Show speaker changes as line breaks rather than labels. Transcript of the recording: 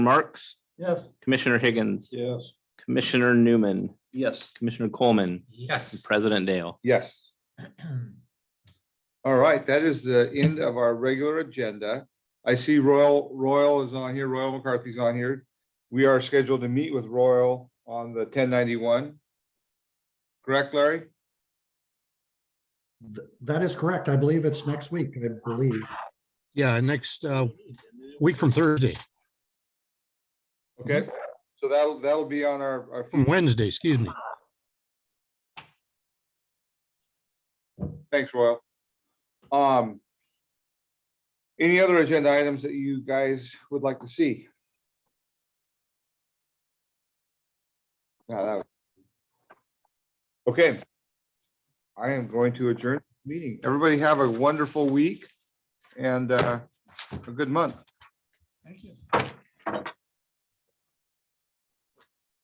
Marks,
Yes.
Commissioner Higgins,
Yes.
Commissioner Newman,
Yes.
Commissioner Coleman, and
Yes.
President Dale.
Yes. All right, that is the end of our regular agenda. I see Royal, Royal is on here, Royal McCarthy's on here. We are scheduled to meet with Royal on the ten ninety-one. Correct, Larry?
Th- That is correct. I believe it's next week, I believe.
Yeah, next uh, week from Thursday,
Okay, so that'll, that'll be on our, our,
from Wednesday, excuse me.
thanks, Royal. Um. Any other agenda items that you guys would like to see? No, that was- Okay. I am going to adjourn the meeting. Everybody have a wonderful week and uh, a good month.
Thank you.